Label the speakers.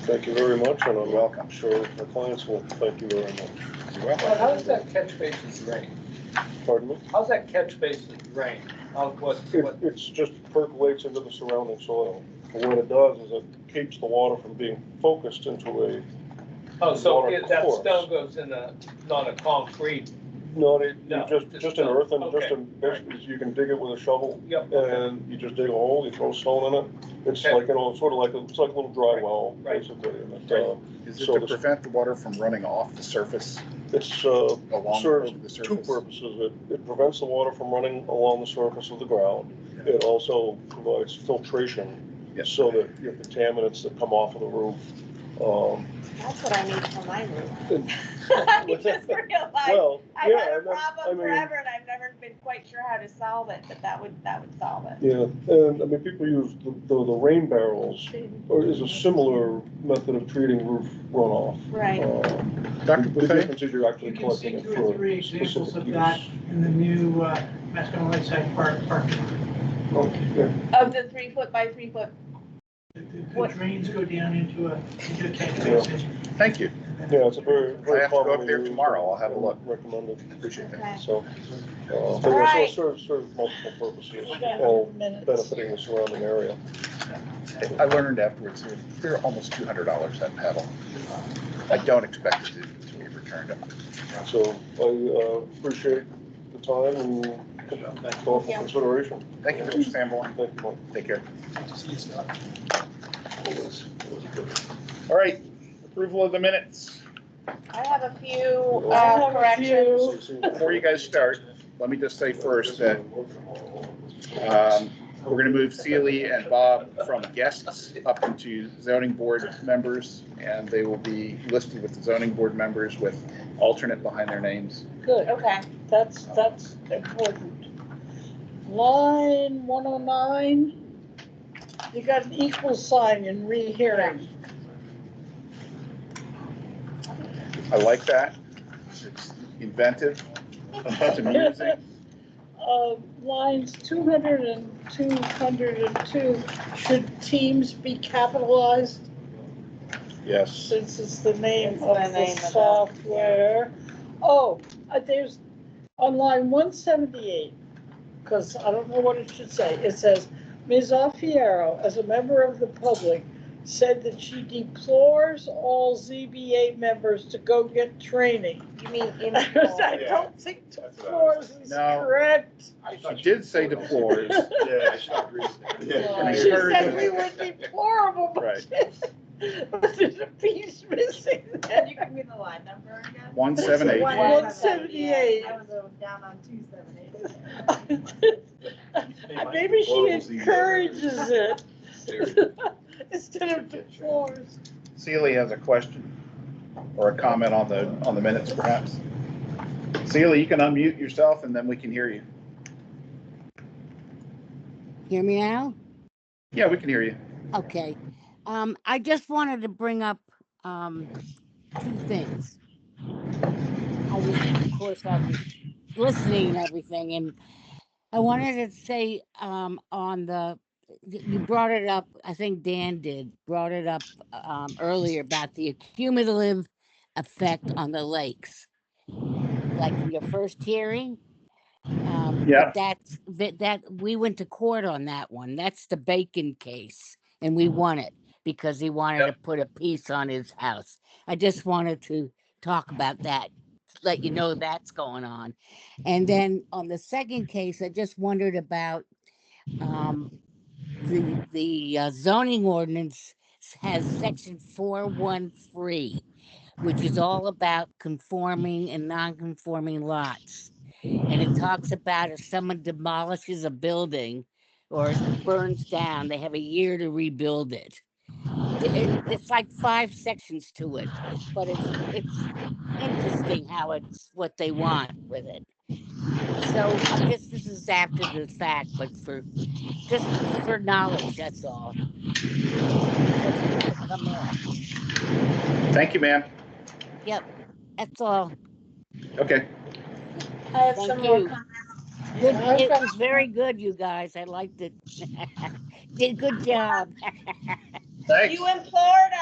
Speaker 1: Thank you very much, and I'm welcome. sure the clients will thank you very much.
Speaker 2: Well, how's that catch basin's drain?
Speaker 1: Pardon me?
Speaker 2: How's that catch basin drain? How, what,
Speaker 1: It,
Speaker 2: what,
Speaker 1: it's just percolates into the surrounding soil. And what it does is it keeps the water from being focused into a,
Speaker 2: oh, so
Speaker 1: Water
Speaker 2: it- that
Speaker 1: course.
Speaker 2: stone goes in a, not a concrete,
Speaker 1: not a, you
Speaker 2: No,
Speaker 1: just,
Speaker 2: just
Speaker 1: just an
Speaker 2: a-
Speaker 1: earthen, just a,
Speaker 2: okay,
Speaker 1: basically, you can dig it with a shovel.
Speaker 2: yep, okay,
Speaker 1: And you just dig a hole, you throw stone in it. It's
Speaker 2: Okay.
Speaker 1: like, you know, sort of like, a- it's like a little dry
Speaker 2: Right,
Speaker 1: well,
Speaker 2: right.
Speaker 1: basically. And it,
Speaker 2: Right.
Speaker 1: uh,
Speaker 3: Is it
Speaker 1: So
Speaker 3: to
Speaker 1: this-
Speaker 3: prevent the water from running off the surface
Speaker 1: It's, uh,
Speaker 3: along
Speaker 1: serves
Speaker 3: over the
Speaker 1: two
Speaker 3: surface?
Speaker 1: purposes. It, it prevents the water from running along the surface of the ground.
Speaker 3: Yeah.
Speaker 1: It also provides filtration
Speaker 3: Yeah.
Speaker 1: so that your contaminants that come off of the roof. um,
Speaker 4: That's what I need for my room.
Speaker 1: And-
Speaker 4: I just realized,
Speaker 1: Well,
Speaker 4: I've
Speaker 1: yeah,
Speaker 4: had a
Speaker 1: and that- I
Speaker 4: problem
Speaker 1: mean,
Speaker 4: forever and I've never been quite sure how to solve it, but that would, that would solve it.
Speaker 1: yeah, and I mean, people use the, the the rain barrels or is a similar method of treating roof runoff.
Speaker 4: Right.
Speaker 1: Um,
Speaker 3: Dr.
Speaker 1: The
Speaker 3: Buffet,
Speaker 1: difference is you're actually
Speaker 5: You can see
Speaker 1: collecting it
Speaker 5: two or
Speaker 1: for
Speaker 5: three examples
Speaker 1: specific
Speaker 5: of
Speaker 1: use.
Speaker 5: that in the new uh, Mascoma Lakeside Park parking lot.
Speaker 1: Okay.
Speaker 4: Of the three foot by three foot,
Speaker 5: The- The
Speaker 4: What-
Speaker 5: the drains go down into a, into a catch
Speaker 1: Yeah.
Speaker 5: basin.
Speaker 3: thank you.
Speaker 1: Yeah, it's a very,
Speaker 3: I
Speaker 1: very
Speaker 3: have to go
Speaker 1: common.
Speaker 3: up there
Speaker 1: use
Speaker 3: tomorrow. I'll have a look.
Speaker 1: Recommended.
Speaker 3: Appreciate that.
Speaker 4: okay.
Speaker 1: So, uh, but yeah, so
Speaker 4: Alright.
Speaker 1: it serves, serves multiple purposes, all benefiting the surrounding area.
Speaker 3: I learned afterwards, they're- they're almost two hundred dollars that paddle. I don't expect it to to be returned.
Speaker 1: So I uh, appreciate the time and thoughtful consideration.
Speaker 3: Thank you, Mr. Sanborn.
Speaker 1: Thank you. Mike.
Speaker 3: Take care. All right, approval of the minutes.
Speaker 4: I have a few
Speaker 1: I
Speaker 4: uh, corrections.
Speaker 3: Before you guys start, let me just say first that um, we're going to move Sealy and Bob from guests up into zoning board members, and they will be listed with the zoning board members with alternate behind their names.
Speaker 6: Good,
Speaker 4: Okay,
Speaker 6: that's, that's important. Line one oh nine, you got an equal sign in rehearing.
Speaker 3: I like that. It's inventive. It's amusing.
Speaker 6: Uh, lines two hundred and two hundred and two, should teams be capitalized
Speaker 3: Yes.
Speaker 6: since it's the name
Speaker 4: It's
Speaker 6: of
Speaker 4: the
Speaker 6: the
Speaker 4: name of the-
Speaker 6: software? Oh, uh, there's, on line one seventy-eight, because I don't know what it should say, it says, Ms. Alfiero, as a member of the public, said that she deplores all ZBA members to go get training.
Speaker 4: You mean in
Speaker 6: I don't think deplores is
Speaker 3: No.
Speaker 6: correct.
Speaker 3: She did say deplores.
Speaker 7: Yeah, she agrees.
Speaker 3: I
Speaker 6: She
Speaker 3: heard
Speaker 6: said
Speaker 3: it.
Speaker 6: we were deplorable, but but there's a piece missing
Speaker 8: Can you
Speaker 6: there.
Speaker 8: give me the line number again?
Speaker 3: One seven eight.
Speaker 4: One-
Speaker 6: One seventy-eight.
Speaker 8: I was uh, down on two seven eight.
Speaker 6: Maybe she
Speaker 7: Deplorable Z.
Speaker 6: encourages it instead of deplores.
Speaker 3: Sealy has a question or a comment on the, on the minutes perhaps. Sealy, you can unmute yourself and then we can hear you.
Speaker 9: Hear me now?
Speaker 3: Yeah, we can hear you.
Speaker 9: Okay. Um, I just wanted to bring up, um, two things. I was, of course, I was listening and everything, and I wanted to say, um, on the, y- you brought it up, I think Dan did, brought it up, um, earlier about the cumulative effect on the lakes. Like in your first hearing. Um, but
Speaker 3: Yeah.
Speaker 9: That's, that, that, we went to court on that one. That's the Bacon case, and we won it because he wanted to put a piece on his house. I just wanted to talk about that, let you know that's going on. And then on the second case, I just wondered about um the the uh, zoning ordinance s- has section four one three, which is all about conforming and non-conforming lots. And it talks about if someone demolishes a building or burns down, they have a year to rebuild it it, it's like five sections to it, but it's it's interesting how it's what they want with it. So I guess this is after the fact, but for just for knowledge, that's all. That's gonna come in.
Speaker 3: Thank you, ma'am.
Speaker 9: That's all.
Speaker 3: Okay.
Speaker 8: I have
Speaker 9: Thank
Speaker 8: some more
Speaker 9: you.
Speaker 8: comments.
Speaker 9: Good,
Speaker 6: I've
Speaker 9: it
Speaker 6: got-
Speaker 9: was very good, you guys. I liked it. Did a good job.
Speaker 3: Thanks.
Speaker 4: You in Florida?